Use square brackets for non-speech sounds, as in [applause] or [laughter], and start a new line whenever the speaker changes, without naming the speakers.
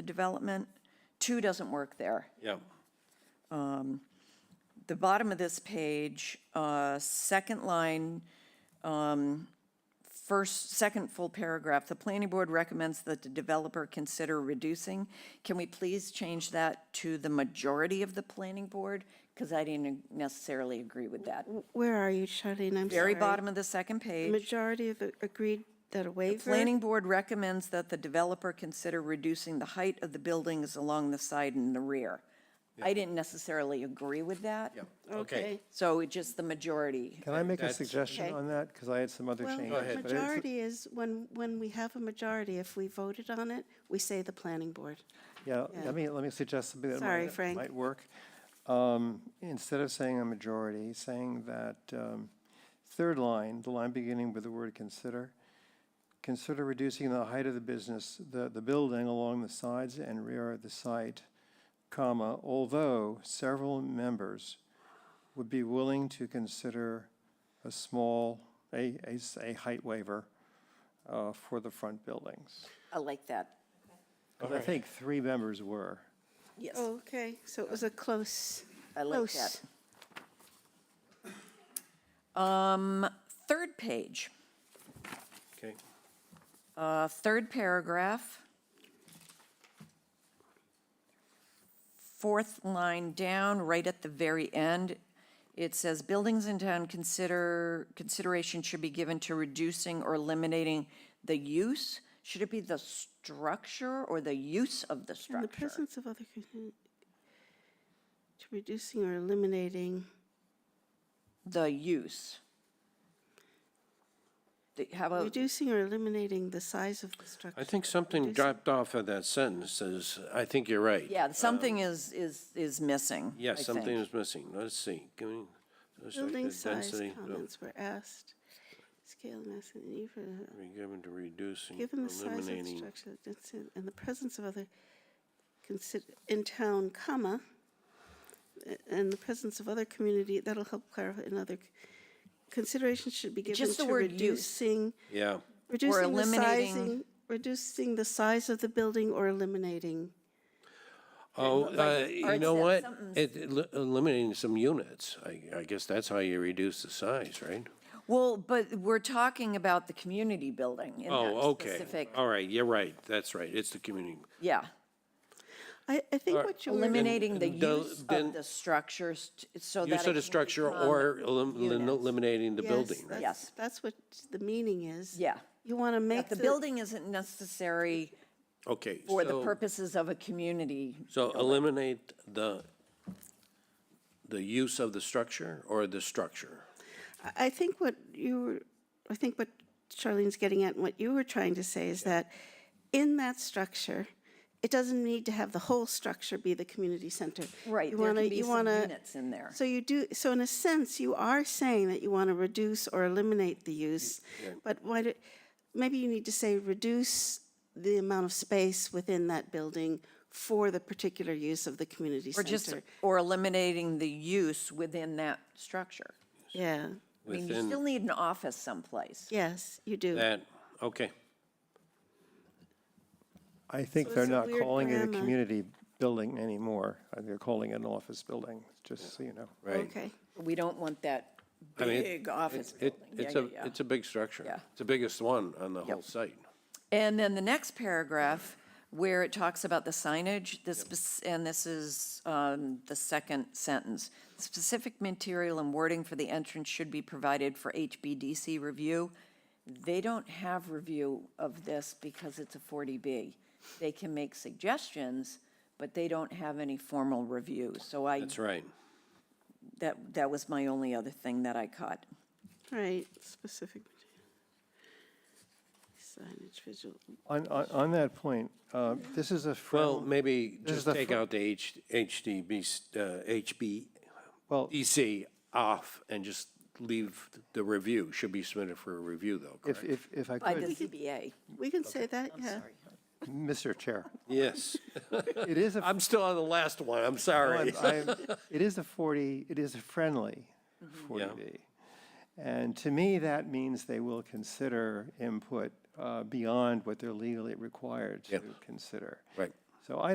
the development. Two doesn't work there.
Yeah.
The bottom of this page, uh, second line, um, first, second full paragraph, the planning board recommends that the developer consider reducing. Can we please change that to the majority of the planning board? Because I didn't necessarily agree with that.
Where are you, Charlene? I'm sorry.
Very bottom of the second page,
Majority of the- agreed that a waiver.
planning board recommends that the developer consider reducing the height of the buildings along the side and the rear. I didn't necessarily agree with that.
Okay.
So it just the majority.
Can I make a
that's-
suggestion
Okay.
on that? Because I had some other
Well,
changes. but it's-
majority is, when, when we have a majority, if we voted on it, we say the planning board.
Yeah, let me, let me suggest something that
Sorry,
might,
Frank.
might work. Um, Instead of saying a majority, saying that um, third line, the line beginning with the word consider, consider reducing the height of the business, the, the building along the sides and rear of the site, comma, although several members would be willing to consider a small, a, a, s- a height waiver uh, for the front buildings.
I like that.
'Cause I think three members were.
Yes,
Oh, okay, so it was a close.
I like
close.
that. Um, Third page,
Okay.
uh, third paragraph. Fourth line down, right at the very end, it says, "Buildings in town consider, consideration should be given to reducing or eliminating the use." Should it be the structure or the use of the
In the
structure?
presence of other, con- to reducing or eliminating,
The use. The- How about?
reducing or eliminating the size of the structure.
I think something dropped off of that sentence, says, I think you're right.
Yeah, something is, is, is missing. I
Yeah, Um, something
think.
is missing. Let's see. Give me- let's check
Building
the
size
density. No,
comments were asked. Scale, mass, and E even,
we Given to reducing,
Given the size of the
eliminating.
structure, that's in- and the presence of other, consider, in town, comma, a- and the presence of other community, that'll help clarify another, c- consideration should be given
Just the
to
word use.
reducing,
Yeah,
reducing the
eliminating-
sizing, reducing the size of the building or eliminating.
oh, uh, you
Art
know
said
what?
something's-
It, it li- eliminating some units, I, I guess that's how you reduce the size, right?
Well, but we're talking about the community building in that
Oh, okay,
specific,
all right, you're right, that's right, it's the community.
yeah.
I, I think what you were,
Eliminating the
and the-
use
then-
of the structures t- so that.
Use
it
of the
can
structure
become-
or elim- elim-
units.
eliminating the
yes,
building, right?
that's,
Yes.
that's what the meaning is.
Yeah.
You want to make
The
the.
building isn't necessary
Okay.
for the
so-
purposes of a community.
So eliminate the, the use of the structure or the structure?
I- I think what you were, I think what Charlene's getting at, and what you were trying to say is that in that structure, it doesn't need to have the whole structure be the community center.
Right,
You
there
wanna-
can be
you
some
wanna-
units in there.
So you do, so in a sense, you are saying that you want to reduce or eliminate the use, but why do, maybe you need to say reduce the amount of space within that building for the particular use of the community
Or just,
center.
or eliminating the use within that structure.
Yeah,
I mean, you
Within-
still need an office someplace.
yes, you do.
That, okay,
I think
So
they're
it's a
not
weird
calling it a
grammar.
community building anymore. I think They're calling it an office building, just so you know.
right.
Okay.
We don't want that
I mean, it-
big office
It,
building. Yeah,
it's
yeah,
a,
yeah.
it's a big structure.
Yeah.
It's the biggest one on the whole site.
And then the next paragraph, where it talks about the signage, the spec- and this is um, the second sentence. Specific material and wording for the entrance should be provided for HBDC review. They don't have review of this because it's a 40B. They can make suggestions, but they don't have any formal review. So I,
That's right.
that, that was my only other thing that I caught.
Right, specific material. Signage visual.
On, on, on that point, uh, this is a
Well,
frown,
maybe
is
just
the
take
fir-
out the H, HDB, uh,
well,
HBDC off and just leave the review. Should be submitted for a review though,
if,
correct?
if, if I
By the
could,
CBA.
We can say that, yeah.
Mr. Chair,
Yes. Oh,
it is [laughs] a,
[laughs] I'm still on the last one, I'm sorry.
I'm-
[laughs]
I'm- it is a 40, it is a friendly
Mm-hmm.
40B. And to me, that means they will consider input uh, beyond what they're legally required
Yeah.
to consider.
Right.
So I